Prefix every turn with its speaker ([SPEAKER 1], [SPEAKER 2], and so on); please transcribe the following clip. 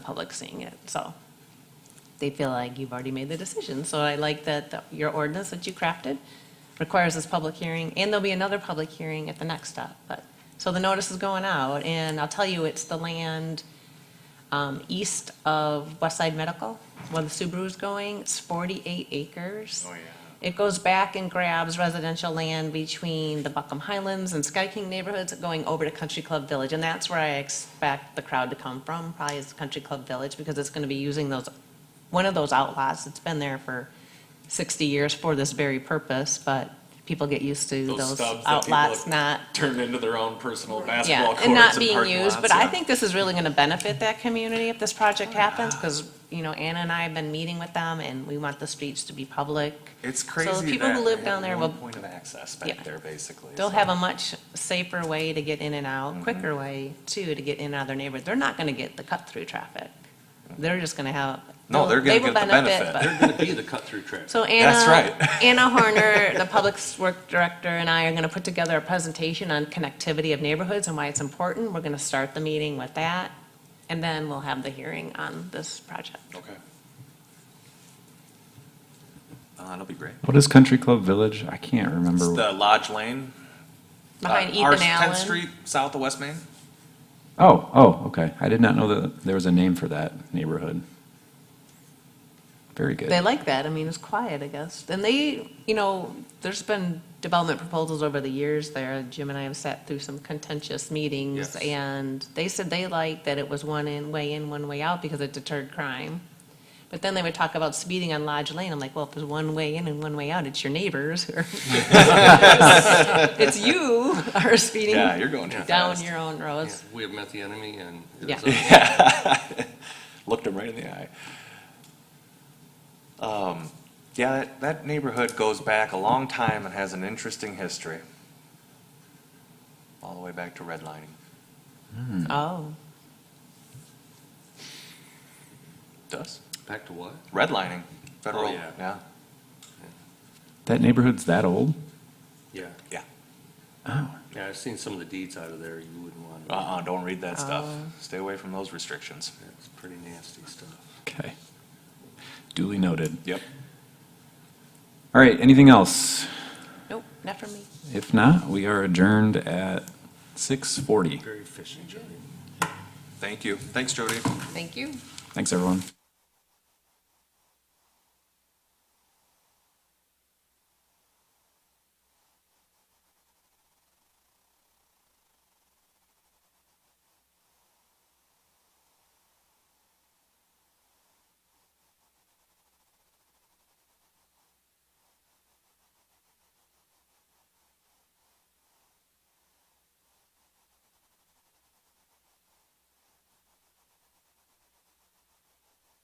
[SPEAKER 1] public seeing it, so they feel like you've already made the decision. So I like that the- your ordinance that you crafted requires this public hearing, and there'll be another public hearing at the next step, but, so the notice is going out, and I'll tell you, it's the land um, east of West Side Medical, where the Subaru's going, it's 48 acres.
[SPEAKER 2] Oh, yeah.
[SPEAKER 1] It goes back and grabs residential land between the Buckham Highlands and Sky King neighborhoods going over to Country Club Village. And that's where I expect the crowd to come from, probably is Country Club Village, because it's going to be using those, one of those outlaws. It's been there for 60 years for this very purpose, but people get used to
[SPEAKER 2] Those
[SPEAKER 1] those
[SPEAKER 2] stubs that people
[SPEAKER 1] outlots
[SPEAKER 2] have
[SPEAKER 1] not
[SPEAKER 2] turned into their own personal
[SPEAKER 1] yeah,
[SPEAKER 2] basketball courts
[SPEAKER 1] and
[SPEAKER 2] and
[SPEAKER 1] not being
[SPEAKER 2] parking
[SPEAKER 1] used,
[SPEAKER 2] lots,
[SPEAKER 1] but I
[SPEAKER 2] yeah. Oh,
[SPEAKER 1] think this is really gonna benefit that community if this project happens, because, you know, Anna and I have been meeting with them, and we want the streets to be public.
[SPEAKER 2] It's
[SPEAKER 1] So the
[SPEAKER 2] crazy
[SPEAKER 1] people
[SPEAKER 2] that
[SPEAKER 1] who
[SPEAKER 2] they
[SPEAKER 1] live
[SPEAKER 2] have
[SPEAKER 1] down there
[SPEAKER 2] one
[SPEAKER 1] will,
[SPEAKER 2] Point of access
[SPEAKER 1] Yeah.
[SPEAKER 2] back there, basically.
[SPEAKER 1] they'll
[SPEAKER 2] so- Mm-hmm.
[SPEAKER 1] have a much safer way to get in and out, quicker way, too, to get in and out of their neighborhood. They're not gonna get the cut-through traffic. They're just gonna have.
[SPEAKER 2] Mm-hmm. No, they're
[SPEAKER 1] they will
[SPEAKER 2] gonna get the benefit.
[SPEAKER 1] but-
[SPEAKER 3] They're gonna be the cut-through traffic.
[SPEAKER 1] So Anna,
[SPEAKER 2] That's right.
[SPEAKER 1] Anna Horner, the Public Work Director, and I are going to put together a presentation on connectivity of neighborhoods and why it's important. We're going to start the meeting with that, and then we'll have the hearing on this project.
[SPEAKER 2] Okay. Uh, That'll be great.
[SPEAKER 4] What is Country Club Village? I can't
[SPEAKER 2] It's
[SPEAKER 4] remember.
[SPEAKER 2] the Lodge Lane. uh,
[SPEAKER 1] Behind
[SPEAKER 2] our
[SPEAKER 1] Ethan
[SPEAKER 2] 10th
[SPEAKER 1] Allen.
[SPEAKER 2] Street, south of West Main.
[SPEAKER 4] Oh, oh, okay. I did not know that there was a name for that neighborhood. Very
[SPEAKER 1] They
[SPEAKER 4] good.
[SPEAKER 1] like that. I mean, it's quiet, I guess. And they, you know, there's been development proposals over the years there. Jim and I have sat through some contentious meetings.
[SPEAKER 2] Yes.
[SPEAKER 1] And they said they liked that it was one in, way in, one way out because it deterred crime. But then they would talk about speeding on Lodge Lane. I'm like, well, if there's one way in and one way out, it's your neighbors. or- It's you are speeding
[SPEAKER 2] Yeah, you're going too
[SPEAKER 1] down
[SPEAKER 2] fast.
[SPEAKER 1] your own roads.
[SPEAKER 3] We have met the enemy and. it
[SPEAKER 1] Yeah.
[SPEAKER 3] is up.
[SPEAKER 2] Looked him right in the eye. Um, yeah, that, that neighborhood goes back a long time and has an interesting history. All the way back to redlining.
[SPEAKER 1] Oh,
[SPEAKER 2] Does?
[SPEAKER 3] Back to what?
[SPEAKER 2] Redlining, federal,
[SPEAKER 3] yeah.
[SPEAKER 2] yeah.
[SPEAKER 4] That neighborhood's that old?
[SPEAKER 3] Yeah,
[SPEAKER 4] Oh,
[SPEAKER 3] yeah, I've seen some of the deeds out of there, you wouldn't want to.
[SPEAKER 2] Uh-uh, don't read that stuff.
[SPEAKER 1] Oh.
[SPEAKER 2] Stay away from those restrictions.
[SPEAKER 3] That's pretty nasty stuff.
[SPEAKER 4] okay. Duly noted.
[SPEAKER 2] Yep.
[SPEAKER 4] All right, anything else?
[SPEAKER 1] nope, not for me.
[SPEAKER 4] If not, we are adjourned at 6:40.
[SPEAKER 3] Very efficient, Johnny.
[SPEAKER 2] Thank you. Thanks, Jody.
[SPEAKER 1] Thank you.
[SPEAKER 4] Thanks, everyone.